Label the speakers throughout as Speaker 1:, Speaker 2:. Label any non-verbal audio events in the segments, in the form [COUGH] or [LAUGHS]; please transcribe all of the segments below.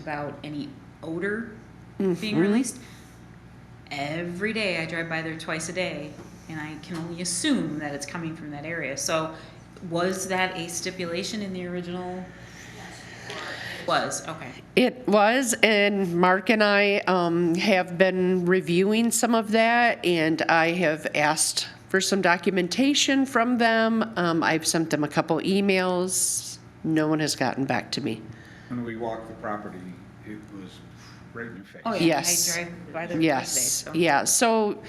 Speaker 1: about any odor
Speaker 2: Mm-hmm.
Speaker 1: being released. Every day I drive by there twice a day and I can only assume that it's coming from that area. So was that a stipulation in the original? Was, okay.
Speaker 2: It was, and Mark and I um, have been reviewing some of that, and I have asked for some documentation from them. Um, I've sent them a couple emails. No one has gotten back to me.
Speaker 3: When we walked the property, it was right in your face.
Speaker 1: Oh, yeah, I
Speaker 2: Yes.
Speaker 1: drive by there twice a day,
Speaker 2: Yes,
Speaker 1: so-
Speaker 2: yeah, so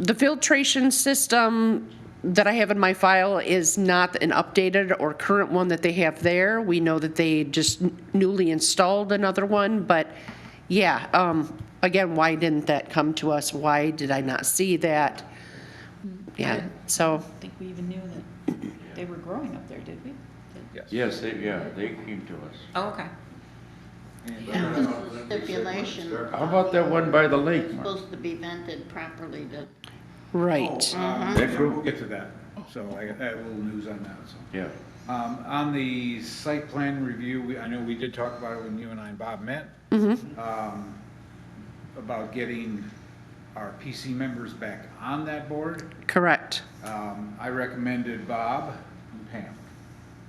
Speaker 2: the filtration system that I have in my file is not an updated or current one that they have there. We know that they just newly installed another one, but yeah, um, again, why didn't that come to us? Why did I not see that? Yeah, so,
Speaker 1: I think we even knew that they were growing up there, did we?
Speaker 3: Yes.
Speaker 4: Yes, they, yeah, they came to us.
Speaker 1: Oh, okay.
Speaker 3: uh, oh,
Speaker 5: stipulation.
Speaker 4: How about that one by the lake, Mark?
Speaker 5: Supposed to be vented properly to,
Speaker 2: right,
Speaker 3: Uh,
Speaker 4: That's true.
Speaker 3: We'll get to that. So I got I have a little news on that, so.
Speaker 4: Yeah.
Speaker 3: Um, On the site plan review, we- I know we did talk about it when you and I and Bob met. um, About getting our PC members back on that board.
Speaker 2: correct.
Speaker 3: Um, I recommended Bob and Pam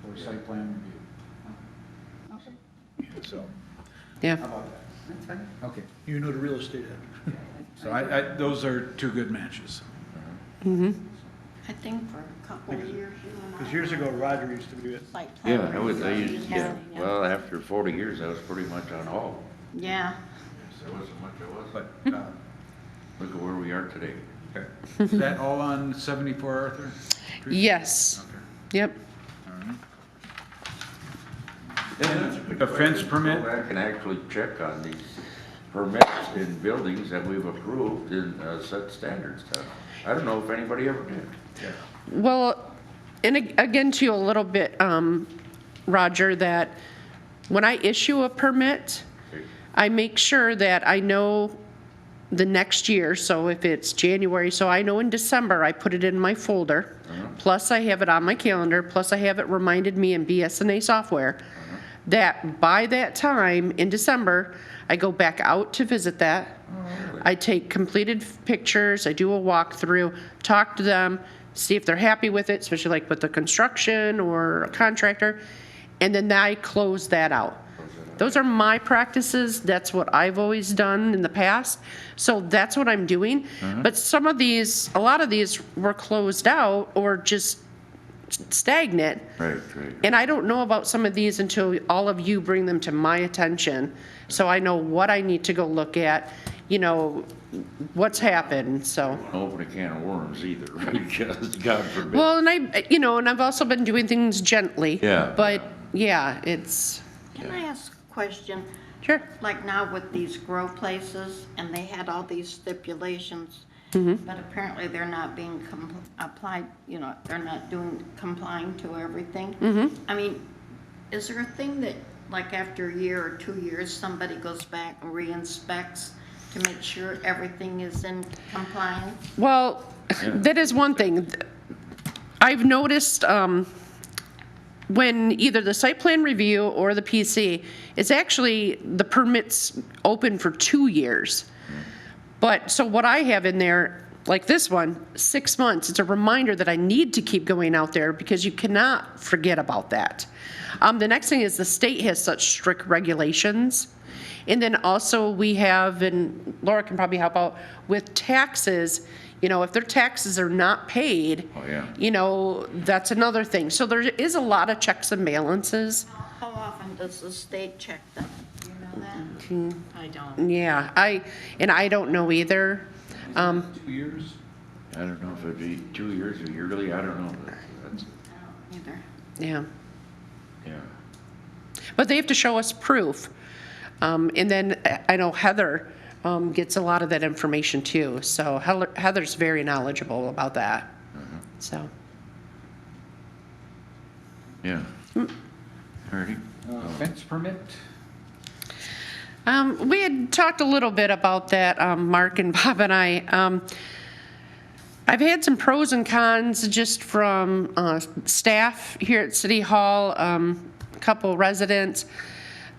Speaker 3: for site plan review. So, how
Speaker 2: Yeah,
Speaker 3: about that? That's fine. Okay. You know the real estate. So I, I, those are two good matches.
Speaker 5: I think for a couple of years. you and I
Speaker 6: Because years ago, Roger used to do it.
Speaker 5: Site plan
Speaker 4: Yeah, I was, I
Speaker 5: review,
Speaker 4: used, yeah,
Speaker 5: yeah.
Speaker 4: well, after forty years, I was pretty much on all.
Speaker 5: Yeah,
Speaker 4: There wasn't much I was.
Speaker 3: But, uh,
Speaker 4: Look at where we are today.
Speaker 3: okay. Is that all on 74 Arthur?
Speaker 2: yes,
Speaker 3: Okay.
Speaker 2: yep,
Speaker 3: A fence permit?
Speaker 4: Go back and actually check on these permits in buildings that we've approved and uh, set standards to. I don't know if anybody ever did.
Speaker 2: Well, and ag- again, to you a little bit, um, Roger, that when I issue a permit, I make sure that I know the next year, so if it's January, so I know in December, I put it in my folder. Plus, I have it on my calendar, plus I have it reminded me in BSNA software that by that time in December, I go back out to visit that. I take completed f- pictures, I do a walkthrough, talk to them, see if they're happy with it, especially like with the construction or a contractor, and then I close that out. Those are my practices, that's what I've always done in the past, so that's what I'm doing. But some of these, a lot of these were closed out or just stagnant.
Speaker 4: Right, right.
Speaker 2: And I don't know about some of these until all of you bring them to my attention, so I know what I need to go look at, you know, what's happened, so.
Speaker 4: Open a can of worms either, [LAUGHS] because God forbid.
Speaker 2: Well, and I, you know, and I've also been doing things gently.
Speaker 4: Yeah.
Speaker 2: But, yeah, it's,
Speaker 5: can I ask a question?
Speaker 2: sure,
Speaker 5: Like now with these grow places, and they had all these stipulations, but apparently they're not being compl- applied, you know, they're not doing, complying to everything. I mean, is there a thing that, like after a year or two years, somebody goes back and re-inspects to make sure everything is in compliance?
Speaker 2: well, that is one thing. I've noticed, um, when either the site plan review or the PC, it's actually, the permit's open for two years. But, so what I have in there, like this one, six months, it's a reminder that I need to keep going out there because you cannot forget about that. Um, the next thing is the state has such strict regulations. And then also we have, and Laura can probably help out, with taxes, you know, if their taxes are not paid.
Speaker 4: Oh, yeah.
Speaker 2: You know, that's another thing. So there is a lot of checks and balances.
Speaker 5: How often does the state check them? Do you know that?
Speaker 1: I don't.
Speaker 2: Yeah, I, and I don't know either. Um,
Speaker 3: Two years?
Speaker 4: I don't know if it'd be two years or yearly, I don't know. That's,
Speaker 5: Either.
Speaker 2: yeah.
Speaker 4: yeah.
Speaker 2: But they have to show us proof. Um, And then uh, I know Heather um, gets a lot of that information too. So Heller- Heather's very knowledgeable about that. So,
Speaker 4: Yeah. Alrighty.
Speaker 3: Uh, Fence permit?
Speaker 2: um, we had talked a little bit about that, um, Mark and [LAUGHS] Bob and I. Um, I've had some pros and cons just from uh, staff here at City Hall, um, a couple residents.